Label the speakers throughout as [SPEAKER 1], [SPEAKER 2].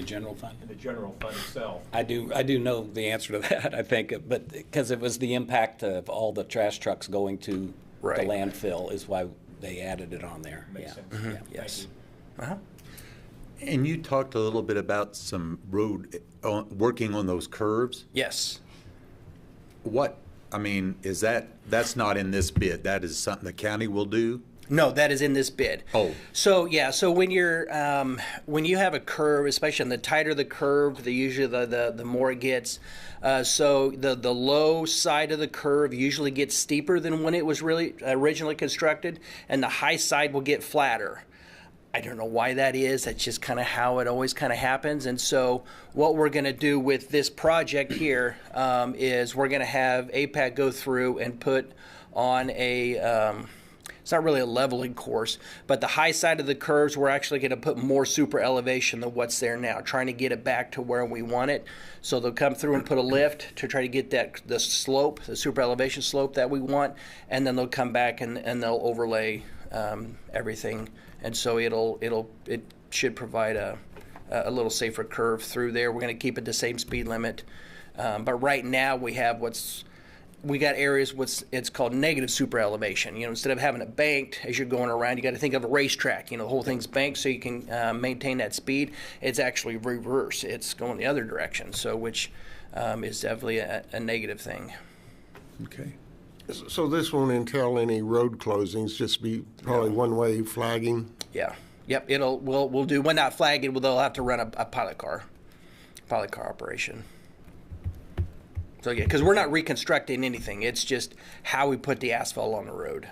[SPEAKER 1] The general fund?
[SPEAKER 2] in the general fund itself.
[SPEAKER 1] I do, I do know the answer to that, I think, but, because it was the impact of all the trash trucks going to the
[SPEAKER 3] Right.
[SPEAKER 1] landfill is why they added it on there.
[SPEAKER 2] Makes
[SPEAKER 1] Yeah.
[SPEAKER 2] sense.
[SPEAKER 1] Yeah.
[SPEAKER 2] Thank
[SPEAKER 1] Yes.
[SPEAKER 2] you.
[SPEAKER 4] And you talked a little bit about some road, on- working on those curves.
[SPEAKER 3] Yes.
[SPEAKER 4] What, I mean, is that, that's not in this bid, that is something the county will do?
[SPEAKER 3] No, that is in this bid.
[SPEAKER 4] Oh.
[SPEAKER 3] So yeah, so when you're um, when you have a curve, especially and the tighter the curve, the usually the the, the more it gets. Uh, so the the low side of the curve usually gets steeper than when it was really originally constructed, and the high side will get flatter. I don't know why that is. That's just kind of how it always kind of happens. And so, what we're going to do with this project here um, is we're going to have APAC go through and put on a. Um, it's not really a leveling course, but the high side of the curves, we're actually going to put more super elevation than what's there now, trying to get it back to where we want it. So they'll come through and put a lift to try to get that the slope, the super elevation slope that we want, and then they'll come back and, and they'll overlay um, everything, and so it'll it'll it should provide a a little safer curve through there. We're going to keep it the same speed limit, um, but right now we have what's we got areas what's it's called negative super elevation. You know, instead of having it banked as you're going around, you got to think of a racetrack. You know, the whole thing's banked so you can uh, maintain that speed. It's actually reverse. It's going the other direction. So, which um, is definitely a, a negative thing.
[SPEAKER 4] Okay.
[SPEAKER 5] So this won't entail any road closings, just be probably one-way flagging?
[SPEAKER 3] Yeah. Yep. It'll we'll we'll do when not flagging. They'll have to run a, a pilot car, pilot car operation. So yeah, because we're not reconstructing anything. It's just how we put the asphalt on the road.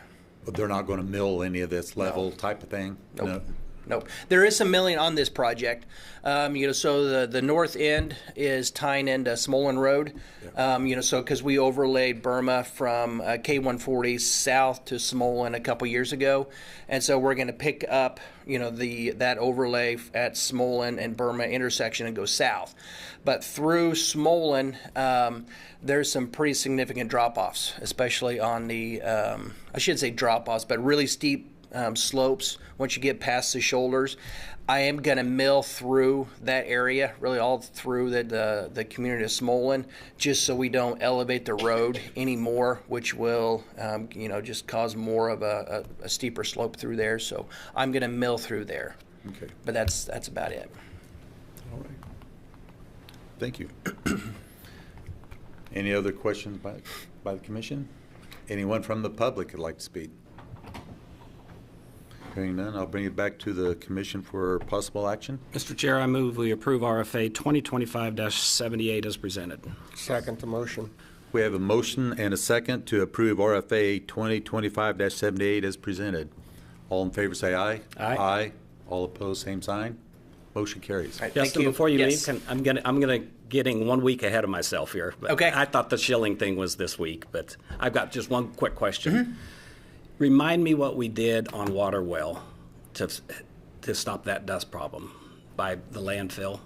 [SPEAKER 4] But they're not gonna mill any of this level type of thing? No.
[SPEAKER 3] Nope. There is some milling on this project. Um, you know, so the, the north end is tying into Smolin Road. Um, you know, so because we overlaid Burma from uh, K140 south to Smolin a couple years ago, and so we're going to pick up you know the that overlay f- at Smolin and Burma intersection and go south. But through Smolin, um, there's some pretty significant drop-offs, especially on the um, I should say drop-offs, but really steep um, slopes once you get past the shoulders. I am going to mill through that area, really all through the, the, the community of Smolin, just so we don't elevate the road anymore, which will, um, you know, just cause more of a, a, a steeper slope through there. So I'm going to mill through there,
[SPEAKER 4] Okay,
[SPEAKER 3] but that's that's about it.
[SPEAKER 4] all right. Thank you. Any other questions by, by the commission? Anyone from the public would like to speak? Hearing none, I'll bring it back to the commission for possible action.
[SPEAKER 6] Mr. Chair, I move we approve RFA 2025-78 as presented.
[SPEAKER 5] Second the motion.
[SPEAKER 4] We have a motion and a second to approve RFA 2025-78 as presented. All in favor, say aye.
[SPEAKER 6] Aye.
[SPEAKER 4] Aye. All opposed, same sign. Motion carries.
[SPEAKER 3] All right, thank
[SPEAKER 6] Justin,
[SPEAKER 3] you.
[SPEAKER 6] before you leave,
[SPEAKER 3] Yes.
[SPEAKER 6] can- I'm gonna, I'm gonna, getting one week ahead of myself here. but
[SPEAKER 3] Okay.
[SPEAKER 6] I thought the shilling thing was this week, but I've got just one quick
[SPEAKER 3] Mm-hmm.
[SPEAKER 6] question. Remind me what we did on Water Well to, to stop that dust problem by the landfill?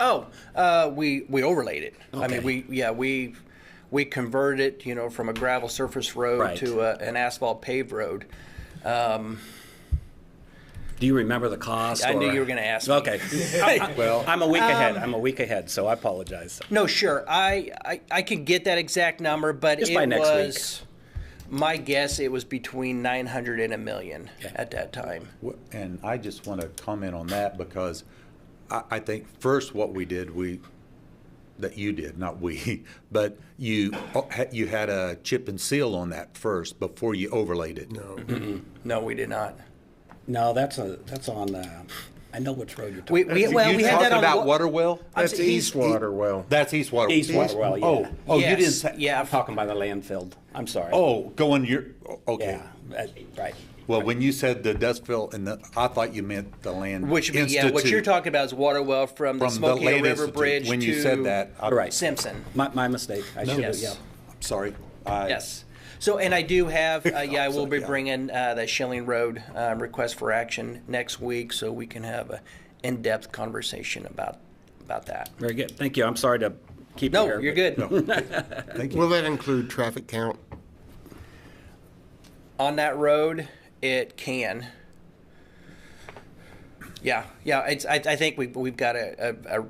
[SPEAKER 3] Oh, uh, we we overlaid it. I mean,
[SPEAKER 6] Okay.
[SPEAKER 3] we yeah we we converted it, you know, from a gravel surface road
[SPEAKER 6] Right.
[SPEAKER 3] to a, an asphalt paved road.
[SPEAKER 6] Do you remember the cost?
[SPEAKER 3] I knew
[SPEAKER 6] or-
[SPEAKER 3] you were gonna ask me. Um,
[SPEAKER 6] Okay.
[SPEAKER 4] Well-
[SPEAKER 6] Well, I'm a week ahead, I'm a week ahead, so I apologize.
[SPEAKER 3] No, sure. I I, I could get that exact number, but
[SPEAKER 6] Just
[SPEAKER 3] it
[SPEAKER 6] by next week.
[SPEAKER 3] was my guess. It was between nine hundred and a million at that time.
[SPEAKER 4] Wh- And I just want to comment on that because I, I think first what we did, we, that you did, not we, but you, oh, ha- you had a chip and seal on that first before you overlaid it. No.
[SPEAKER 3] No, we did not.
[SPEAKER 6] No, that's a, that's on, uh, I know which road you're
[SPEAKER 3] We,
[SPEAKER 6] talking.
[SPEAKER 3] we well
[SPEAKER 4] You
[SPEAKER 3] we had
[SPEAKER 4] talking
[SPEAKER 3] that on
[SPEAKER 4] about
[SPEAKER 3] wa-
[SPEAKER 4] Waterwell?
[SPEAKER 3] I'm
[SPEAKER 2] That's
[SPEAKER 3] saying he's-
[SPEAKER 2] East Waterwell.
[SPEAKER 4] That's East Water.
[SPEAKER 6] East Water Well, yeah.
[SPEAKER 4] Oh, oh, you didn't
[SPEAKER 3] Yes,
[SPEAKER 4] say.
[SPEAKER 3] yeah.
[SPEAKER 6] I'm talking by the landfill, I'm sorry.
[SPEAKER 4] Oh, going your, oh, okay.
[SPEAKER 6] Yeah, that- right.
[SPEAKER 4] Well, when you said the Dustville and the, I thought you meant the land.
[SPEAKER 3] Which yeah, what you're
[SPEAKER 4] Institute
[SPEAKER 3] talking about is water well from the
[SPEAKER 4] from the
[SPEAKER 3] Smoky
[SPEAKER 4] Land
[SPEAKER 3] River
[SPEAKER 4] Institute.
[SPEAKER 3] Bridge
[SPEAKER 4] When you
[SPEAKER 3] to
[SPEAKER 4] said that, I-
[SPEAKER 6] Right.
[SPEAKER 3] Simpson.
[SPEAKER 6] My, my mistake. I should have,
[SPEAKER 3] uh, Yes.
[SPEAKER 6] yeah.
[SPEAKER 4] I'm sorry. I-
[SPEAKER 3] Yes. So, and I do have, uh, yeah, I will be
[SPEAKER 4] Yeah.
[SPEAKER 3] bringing uh, the Schilling Road uh, request for action next week, so we can have a in-depth conversation about, about that.
[SPEAKER 6] Very good. Thank you. I'm sorry to keep you
[SPEAKER 3] No,
[SPEAKER 6] here,
[SPEAKER 3] you're
[SPEAKER 6] but-
[SPEAKER 3] good.
[SPEAKER 4] Thank you.
[SPEAKER 5] Will that include traffic count?
[SPEAKER 3] On that road, it can. Yeah, yeah, it's, I, I think we've, we've got a, a, a